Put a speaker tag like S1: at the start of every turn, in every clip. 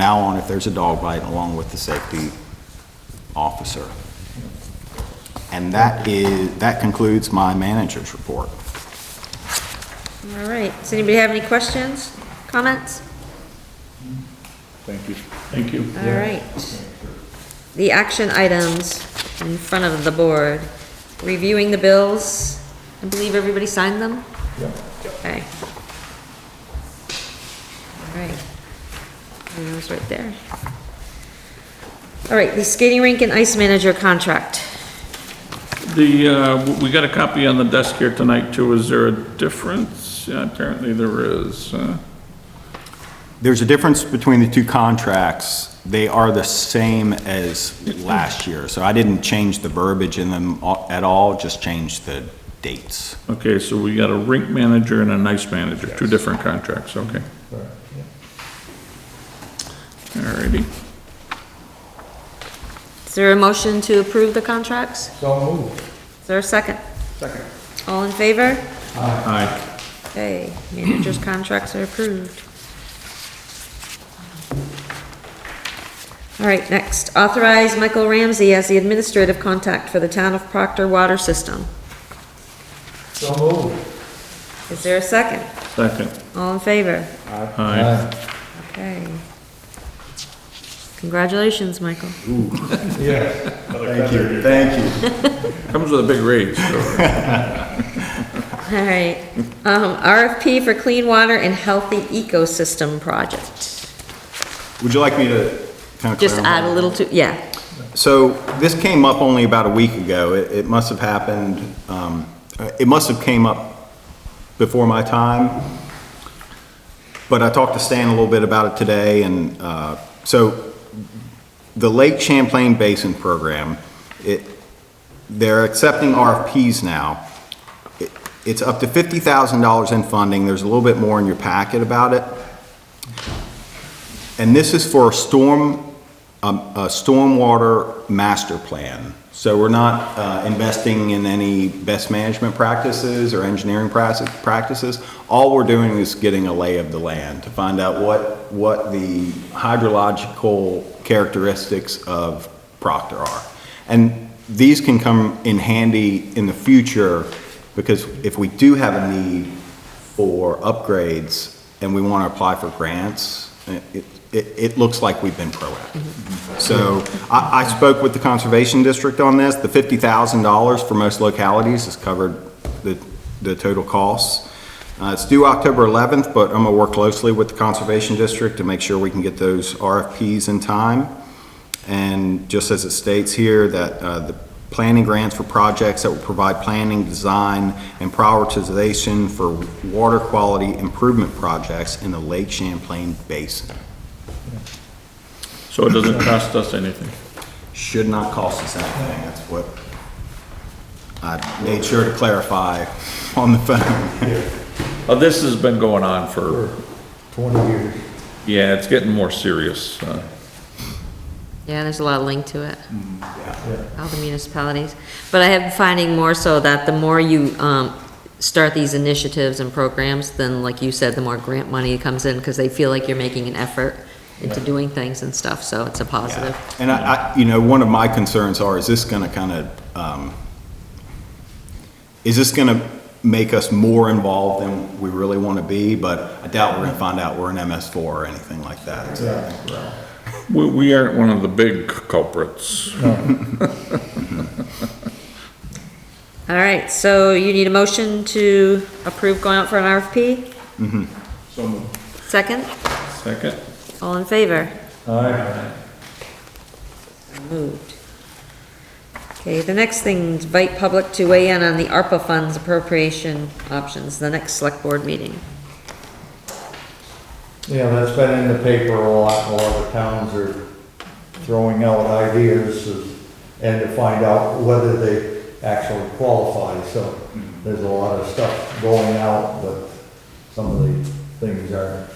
S1: now on if there's a dog bite along with the safety officer. And that is, that concludes my manager's report.
S2: All right, does anybody have any questions, comments?
S3: Thank you. Thank you.
S2: All right. The action items in front of the board, reviewing the bills, I believe everybody signed them? Okay. All right. And Those right there. All right, the skating rink and ice manager contract.
S3: The, uh, we got a copy on the desk here tonight too. Is there a difference? Yeah, Apparently there is. uh, huh?
S1: There's a difference between the two contracts. They are the same as last year, so I didn't change the verbiage in them a- at all, just changed the dates.
S3: Okay, so we got a rink manager and a nice manager, two different contracts, okay. Alrighty.
S2: Is there a motion to approve the contracts? So moved. Is there a second? Second. All in favor?
S3: Aye.
S2: Okay, managers' contracts are approved. All right, next, authorize Michael Ramsey as the administrative contact for the town of Proctor Water System.
S4: So moved.
S2: Is there a second?
S3: Second.
S2: All in favor?
S3: Aye.
S2: Okay. Congratulations, Michael.
S4: Yeah.
S1: Thank you, thank you.
S3: Comes with a big raise. so-
S2: All right, um, RFP for clean water and healthy ecosystem project.
S1: Would you like me to kind of
S2: Just add a little to, yeah.
S1: So this came up only about a week ago. It, it must have happened, um, it must have came up before my time. But I talked to Stan a little bit about it today and, uh, so the Lake Champlain Basin Program, it, they're accepting RFPs now. It- It's up to fifty thousand dollars in funding. There's a little bit more in your packet about it. And this is for a storm, um, a stormwater master plan. So we're not uh, investing in any best management practices or engineering prac- practices. All we're doing is getting a lay of the land to find out what, what the hydrological characteristics of Proctor are. And these can come in handy in the future because if we do have a need, for upgrades and we want to apply for grants, it, it, it looks like we've been proactive. So I, I spoke with the Conservation District on this. The fifty thousand dollars for most localities has covered the, the total costs. Uh, it's due October eleventh, but I'm gonna work closely with the Conservation District to make sure we can get those RFPs in time. And just as it states here, that uh, the planning grants for projects that will provide planning, design, and prioritization for water quality improvement projects in the Lake Champlain Basin.
S3: So it doesn't cost us anything.
S1: Should not cost us anything, that's what I made sure to clarify on the phone.
S3: Uh, this has been going on for,
S4: Twenty years.
S3: yeah, it's getting more serious. uh,
S2: Yeah, there's a lot linked to it. All the municipalities. But I have been finding more so that the more you, um, start these initiatives and programs, then like you said, the more grant money comes in, because they feel like you're making an effort into doing things and stuff, so it's a positive.
S1: And I, I- you know, one of my concerns are, is this gonna kind of, um, is this gonna make us more involved than we really want to be? But I doubt we're gonna find out we're an MS4 or anything like that. So I think we're all-
S3: We, we aren't one of the big culprits.
S2: All right, so you need a motion to approve going out for an RFP? Mm-hmm. Second,
S3: Second?
S2: all in favor?
S4: Aye.
S2: Moved. Okay, the next thing, invite public to weigh in on the ARPA funds appropriation options, the next select board meeting.
S4: Yeah, that's been in the paper a lot, a lot of towns are throwing out ideas of- and to find out whether they actually qualify, so there's a lot of stuff going out, but some of the things are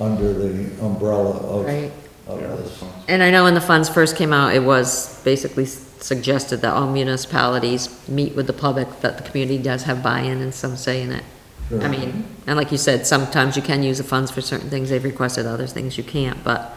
S4: under the umbrella of,
S2: Right.
S4: of this.
S2: And I know when the funds first came out, it was basically suggested that all municipalities meet with the public, that the community does have buy-in and some say in it. I
S4: Sure.
S2: mean, and like you said, sometimes you can use the funds for certain things they've requested, other things you can't, but